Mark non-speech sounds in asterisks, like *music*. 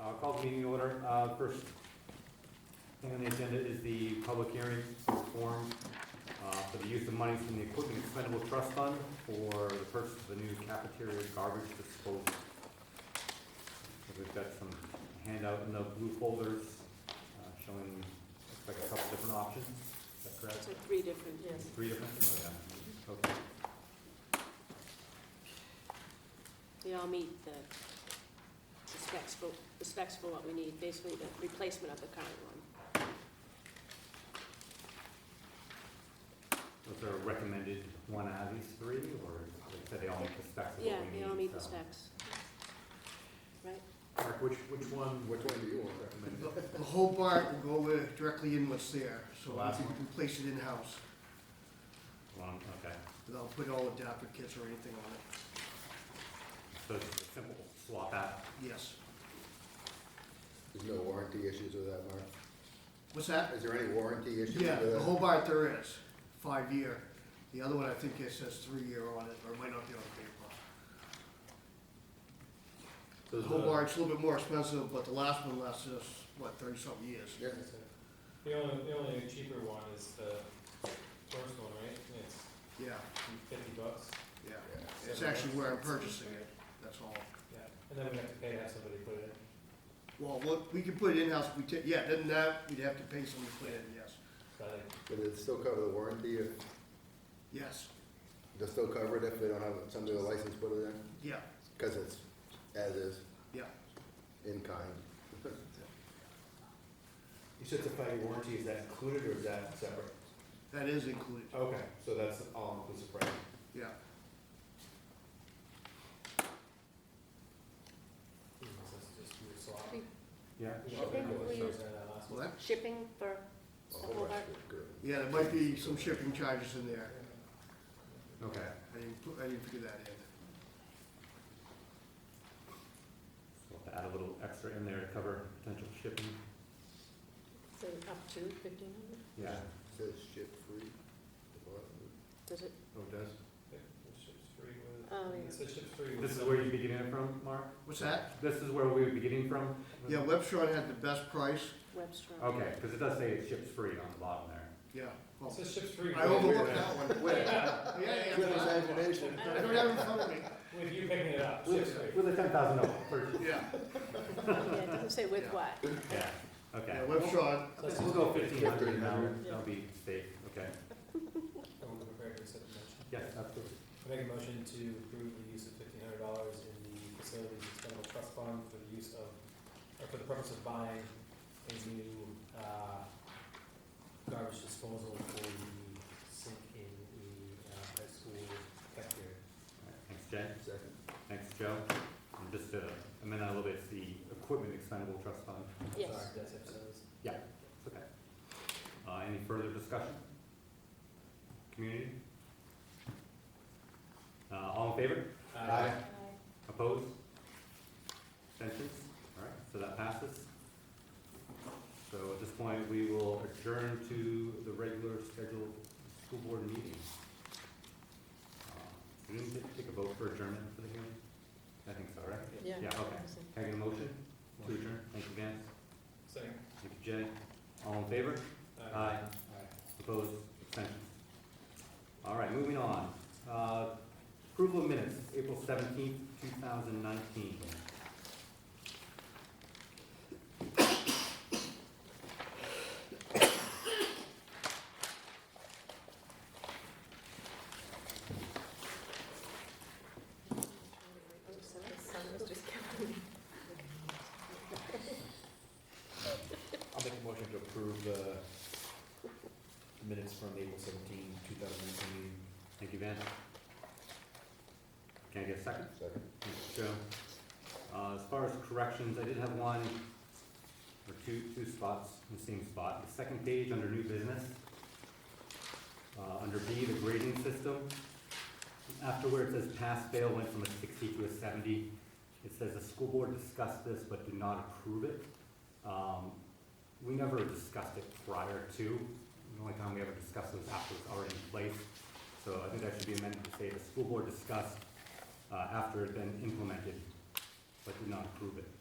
Uh, Call the meeting to order. Uh, First thing on the agenda is the public hearing form uh, for the use of money from the Equipment Expendable Trust Fund for the purchase of a new cafeteria garbage disposal. We've got some handout in the blue folders uh, showing, looks like a couple different options. Is that correct? So three different, yes. Three different? Oh, yeah. Okay. They all meet the the specs for, the specs for what we need, basically the replacement of the current one. Was there a recommended one out of these three, or they said they all meet the specs of what we Yeah, need? uh, they all meet the so. specs. Right? Mark, which, which one, which one do you want recommended? The whole part will go where- directly in what's there, so Last we can- one. can place it in-house One, okay, without putting all adapter kits or anything on it. so it's a simple swap out. Yes. There's no warranty issues with that, Mark? What's that? Is there any warranty issues with Yeah, that? the whole part there is, five-year. The other one, I think it says three-year on it, or it might not be on the paper. The whole bar, it's a little bit more expensive, but the last one lasts us, what, thirty-something years? Yeah, The only, the only cheaper one is the first one, right? It's Yeah, fifty bucks. yeah. yeah. It's actually where I'm purchasing it, that's all. Yeah. And then we have to pay to have somebody put it in, Well, what- we could put it in-house if we take, yeah, then that, we'd have to pay someone to put it in, yes. so I think But it still cover the warranty, if, Yes, they'll still cover it if they don't have somebody with a license put it in? yeah, Cause it's as is, yeah. in kind. You said the five-year warranty, is that included or is that separate? That is included, Okay, so that's all inclusive price. yeah. this is just your swap. Should Yeah. We Should don't we remember what include- shows that last one. Well, that, Shipping for, A whole bunch of good. yeah, there might be some shipping charges in there. Okay, I didn't, put- I didn't figure that in. so we'll add a little extra in there to cover potential shipping. so up to fifteen hundred? Yeah. Says ship free. Does it, Oh, it does? Yeah, it ships free with- Oh, yeah. It says ships free with This is where some- you'd be getting it from, Mark? What's that? This is where we would be getting from? Yeah, Webshot had the best price, Webster? Okay, because it does say it ships free on the bottom there. yeah. It well, says ships free. I overlooked that one, Wait. *laughs* Yeah, yeah, Good yeah. imagination. I don't have it in front of me, With you picking it up, ships free. With with a ten thousand dollar purchase. yeah. Yeah, it doesn't say with Yeah. what. Yeah, Yeah, okay. Webshot, Let's We'll just go fifteen hundred now, 1,500. that'll be safe, okay? I'm prepared to accept the motion. Yes, absolutely. I make a motion to approve the use of fifteen hundred dollars in the facilities expendable trust fund for the use of, or for the purpose of buying a new, uh, garbage disposal for the sink in the, uh, high school cafeteria. All right, Thanks, Jen. Second. Thanks, Joe. And just to amend that a little bit, it's the Equipment Expendable Trust Fund. Yes. Sorry, that's episodes. It's Okay. Uh, any further discussion? Community? Uh, all in favor? Uh, Opposed? Abstentions? All right, so that passes. So at this point, we will adjourn to the regular scheduled school board meeting. Uh, We didn't get to take a vote for adjournment for the hearing? I think so, right? Yeah, okay. Can I get a motion to adjourn? Thank you, Dan. Second. Thank you, Jay. All in favor? Aye. Opposed, abstentions. All right, moving on. Uh, Approval of minutes, April seventeenth, two thousand nineteen. *laughs* I'll make a motion to approve the minutes from April 17, 2018. Thank you, Van. Can I get a second? Second. Thank you, Joe. Uh, As far as corrections, I did have one, or two, two spots in the same spot. The second page, under new business, uh, under B, the grading system, after where it says pass fail went from a sixty to a seventy, it says the school board discussed this but did not approve it. Um, We never discussed it prior to, the only time we ever discussed it was after it was already in place. So I think that should be amended to say the school board discussed uh, after it had been implemented, but did not approve it.